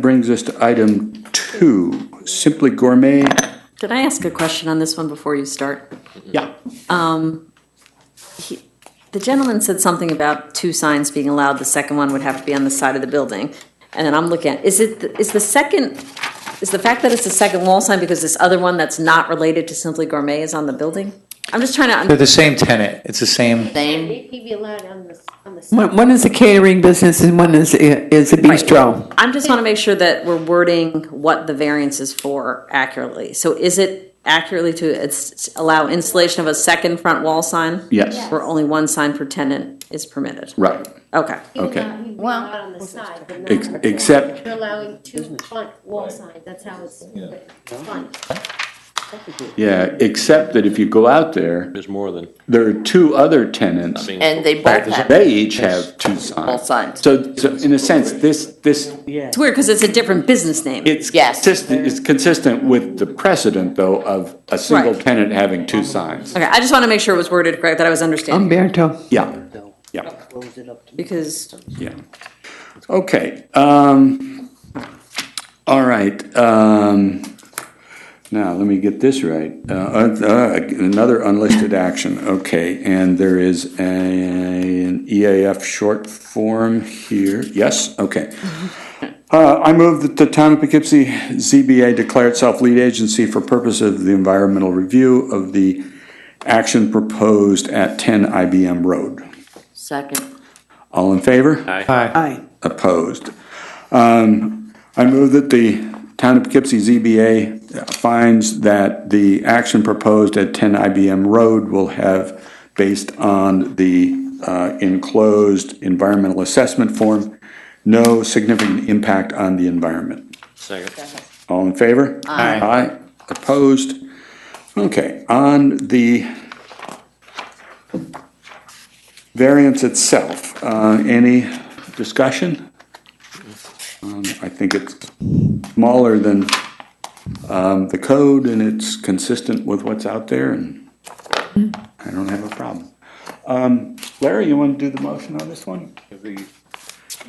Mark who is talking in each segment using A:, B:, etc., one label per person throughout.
A: brings us to item two, Simply Gourmet.
B: Can I ask a question on this one before you start? Um,
A: Yeah.
B: The gentleman said something about two signs being allowed, the second one would have to be on the side of the building. And then I'm looking at, is it, is the second, is the fact that it's the second wall sign because this other one that's not related to Simply Gourmet is on the building? I'm just trying to,
C: They're the same tenant. It's the same.
D: Can BP be allowed on the, on the side?
E: One, one is a catering business and one is, is a bistro.
B: I'm just want to make sure that we're wording what the variance is for accurately. So is it accurately to it's- allow installation of a second front wall sign?
A: Yes.
B: Where only one sign per tenant is permitted?
A: Right.
B: Okay.
A: Okay.
D: He'd be allowed on the side, but not.
A: Ex- Except,
D: You're allowing two front wall signs, that's how it's, front.
A: yeah, except that if you go out there,
F: There's more than.
A: there are two other tenants.
G: And they both have
A: They each have two signs.
G: Both signs.
A: So, so in a sense, this, this,
B: It's weird because it's a different business name.
A: it's
G: Yes.
A: consistent, it's consistent with the precedent, though, of a single
B: Right.
A: tenant having two signs.
B: Okay, I just want to make sure it was worded correct, that I was understanding,
E: Umberto.
A: Yeah, yeah.
B: because
A: Yeah. Okay, um, all right, um, now, let me get this right. Uh, uh, another unlisted action, okay, and there is a, an EAF short form here, yes, okay. Uh, I move that the town of Poughkeepsie ZBA declare itself lead agency for purpose of the environmental review of the action proposed at ten IBM Road.
G: second.
A: All in favor?
C: Hi.
E: Aye.
A: Opposed. Um, I move that the Town of Poughkeepsie ZBA finds that the action proposed at 10 IBM Road will have, based on the uh, enclosed environmental assessment form, no significant impact on the environment.
F: Second.
A: All in favor?
C: Aye.
A: Aye. Opposed? Okay, on the variance itself, uh, any discussion? Um, I think it's smaller than um, the code, and it's consistent with what's out there, and I don't have a problem. Um, Larry, you want to do the motion on this one?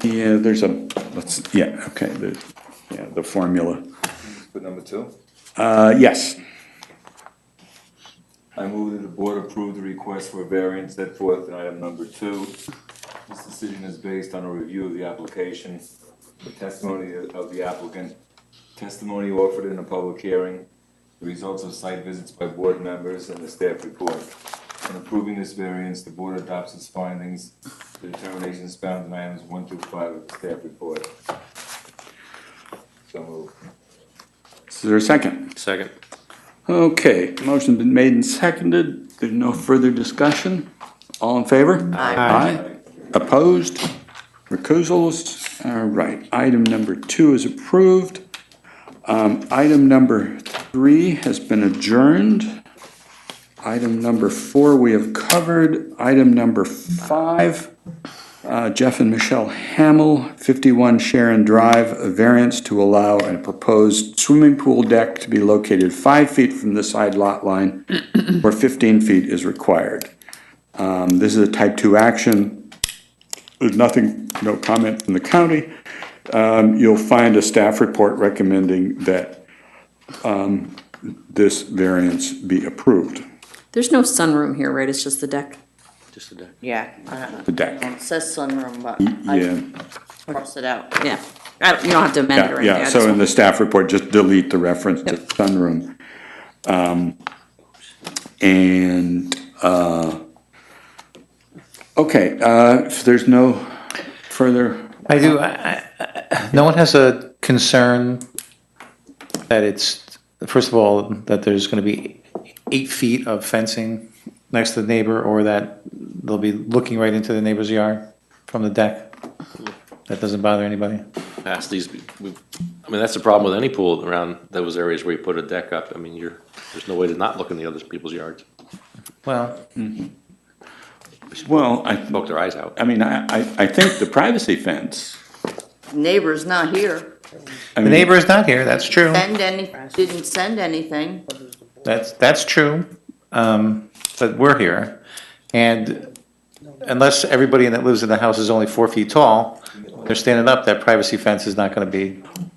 A: Yeah, there's a, let's, yeah, okay, the, yeah, the formula.
H: For number two,
A: Uh, yes.
H: I move that the board approve the request for a variance set forth in item number two. This decision is based on a review of the application, the testimony of the applicant, testimony offered in a public hearing, the results of site visits by board members, and the staff report. In approving this variance, the board adopts its findings, the determinations found in items one through five of the staff report. So moved.
A: Is there a second?
F: Second.
A: Okay, motion been made and seconded. There's no further discussion. All in favor? Aye. Opposed? Recusals? All right, item number two is approved. Um, item number three has been adjourned. Item number four we have covered. Item number five. Uh, Jeff and Michelle Hamel, 51 Sharon Drive, a variance to allow a proposed swimming pool deck to be located five feet from the side lot line where 15 feet is required. Um, This is a type 2 action. There's nothing, no comment from the county. Um, You'll find a staff report recommending that um, this variance be approved,
B: there's no sunroom here, right? It's just the deck.
F: Just a deck.
G: Yeah. uh,
A: the deck.
G: It says sunroom, but
A: Yeah.
G: I crossed it out.
B: Yeah. I don't, you don't have to amend it
A: Yeah,
B: or anything. I
A: yeah,
B: just
A: so in
B: want-
A: the staff report, just delete the reference to sunroom. Um, And, uh, okay, uh, if there's no further,
C: I do. I, I, no one has a concern that it's first of all that there's going to be eight feet of fencing next to the neighbor, or that they'll be looking right into the neighbor's yard from the deck. That doesn't bother anybody.
F: Past these, we, I mean, that's the problem with any pool around those areas where you put a deck up. I mean, you're, there's no way to not look in the other people's yards.
C: Well,
A: well, I,
F: Poke their eyes out.
A: I mean, I, I, I think the privacy fence.
G: Neighbor's not here.
A: I
C: the
A: mean,
C: neighbor is not here. That's true.
G: Send any, didn't send anything.
C: That's, that's true, um, but we're here. And unless everybody that lives in the house is only four feet tall, they're standing up, that privacy fence is not gonna be